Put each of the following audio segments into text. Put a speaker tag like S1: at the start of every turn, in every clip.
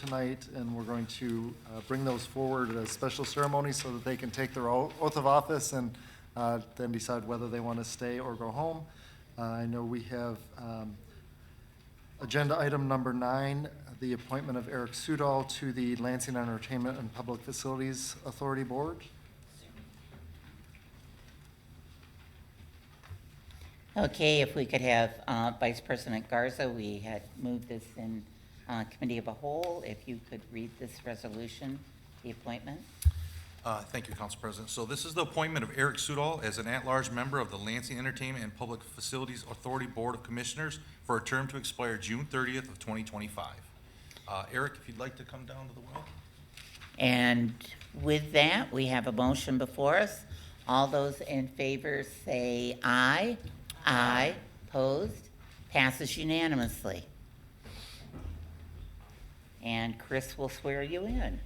S1: tonight, and we're going to uh, bring those forward at a special ceremony so that they can take their o- oath of office and uh, then decide whether they want to stay or go home. Uh, I know we have um, Agenda item number nine, the appointment of Eric Sudol to the Lansing Entertainment and Public Facilities Authority Board.
S2: Okay, if we could have uh, Vice President Garza, we had moved this in uh, Committee of a Whole. If you could read this resolution, the appointment.
S3: Uh, Thank you, Council President. So this is the appointment of Eric Sudol as an at-large member of the Lansing Entertainment and Public Facilities Authority Board of Commissioners for a term to expire June 30th of 2025. Uh, Eric, if you'd like to come down to the well.
S2: And with that, we have a motion before us. All those in favor say aye. Aye. Opposed? Passes unanimously. And Chris will swear you in.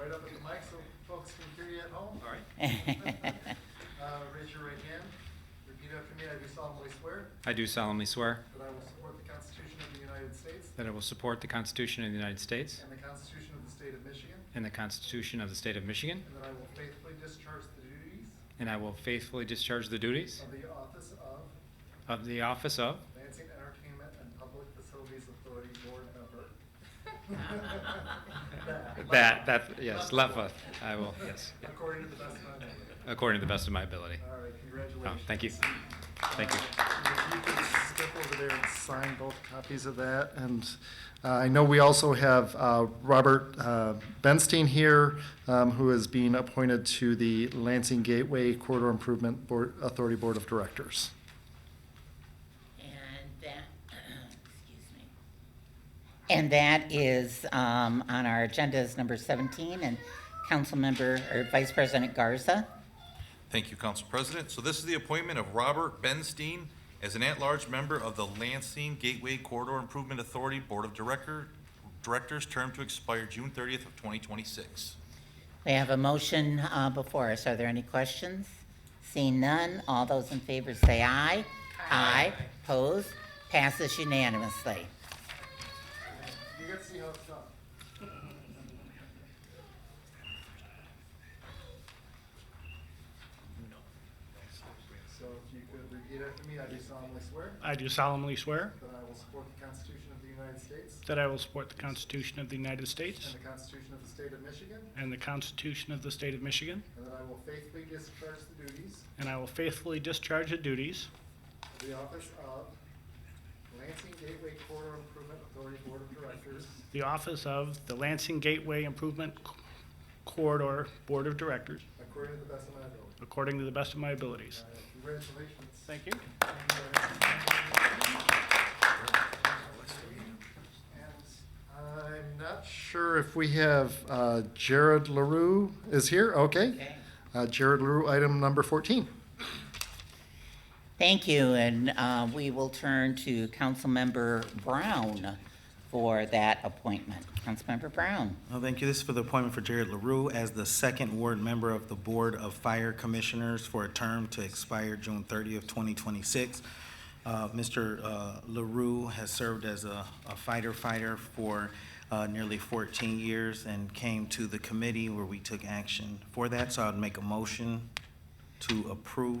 S1: Right up at the mic so folks can hear you at home. All right. Raise your right hand. Repeat after me. I do solemnly swear
S4: I do solemnly swear
S1: that I will support the Constitution of the United States
S4: that I will support the Constitution of the United States
S1: and the Constitution of the State of Michigan,
S4: and the Constitution of the State of Michigan,
S1: and that I will faithfully discharge the duties
S4: and I will faithfully discharge the duties
S1: of the office of
S4: of the office of
S1: Lansing Entertainment and Public Facilities Authority Board member.
S4: that, that, yes, LEPA. I will, yes, yeah,
S1: According to the best of my ability.
S4: according to the best of my ability.
S1: All right,
S4: Oh,
S1: congratulations.
S4: Thank you. Thank you.
S1: If you can Step over there and sign both copies of that. And uh, I know we also have uh, Robert uh, Benstein here, um, who is being appointed to the Lansing Gateway Corridor Improvement Board, Authority Board of Directors.
S2: And that, excuse me. And that is, um, on our agenda is number seventeen, and Councilmember, or Vice President Garza.
S3: Thank you, Council President. So this is the appointment of Robert Benstein as an at-large member of the Lansing Gateway Corridor Improvement Authority Board of Director, Directors, term to expire June 30th of 2026.
S2: We have a motion, uh, before us. Are there any questions? Seeing none, all those in favor say aye. Aye. Opposed? Passes unanimously.
S1: You get to see how it's done. So if you could repeat after me, I do solemnly swear
S5: I do solemnly swear
S1: that I will support the Constitution of the United States
S5: that I will support the Constitution of the United States
S1: and the Constitution of the State of Michigan,
S5: and the Constitution of the State of Michigan,
S1: and that I will faithfully discharge the duties
S5: and I will faithfully discharge the duties
S1: of the office of Lansing Gateway Corridor Improvement Authority Board of Directors
S5: of the office of the Lansing Gateway Improvement Corridor Board of Directors
S1: according to the best of my ability.
S5: according to the best of my abilities.
S1: Uh, Congratulations.
S5: Thank you.
S1: And I'm not sure if we have uh, Jared LaRue is here, okay? Uh, Jared LaRue, item number 14.
S2: Thank you, and, uh, we will turn to Councilmember Brown for that appointment. Councilmember Brown.
S6: Oh, thank you. This is for the appointment for Jared LaRue as the second ward member of the Board of Fire Commissioners for a term to expire June 30th, 2026. Uh, Mr. uh, LaRue has served as a a fighter fighter for uh, nearly 14 years and came to the committee where we took action for that. So I'd make a motion to approve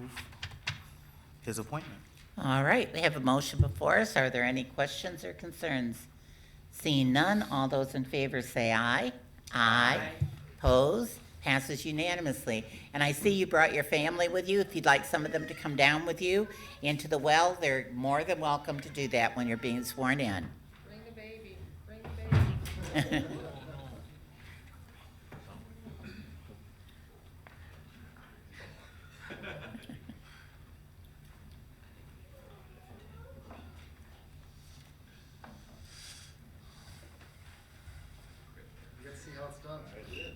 S6: his appointment.
S2: All right, we have a motion before us. Are there any questions or concerns? Seeing none, all those in favor say aye. Aye. Opposed? Passes unanimously. And I see you brought your family with you. If you'd like some of them to come down with you into the well, they're more than welcome to do that when you're being sworn in.
S7: Bring the baby, bring the baby.
S1: You gotta see how it's done. I did.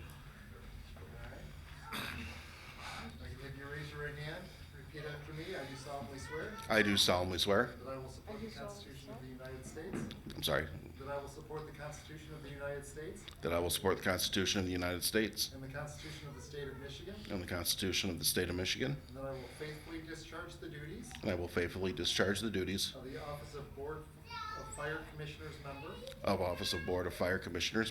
S1: If you raise your right hand, repeat after me, I do solemnly swear
S8: I do solemnly swear,
S1: that I will support the Constitution of the United States,
S8: I'm sorry,
S1: that I will support the Constitution of the United States
S8: that I will support the Constitution of the United States
S1: and the Constitution of the State of Michigan,
S8: and the Constitution of the State of Michigan,
S1: and that I will faithfully discharge the duties
S8: and I will faithfully discharge the duties
S1: of the office of Board of Fire Commissioners member.
S8: of Office of Board of Fire Commissioners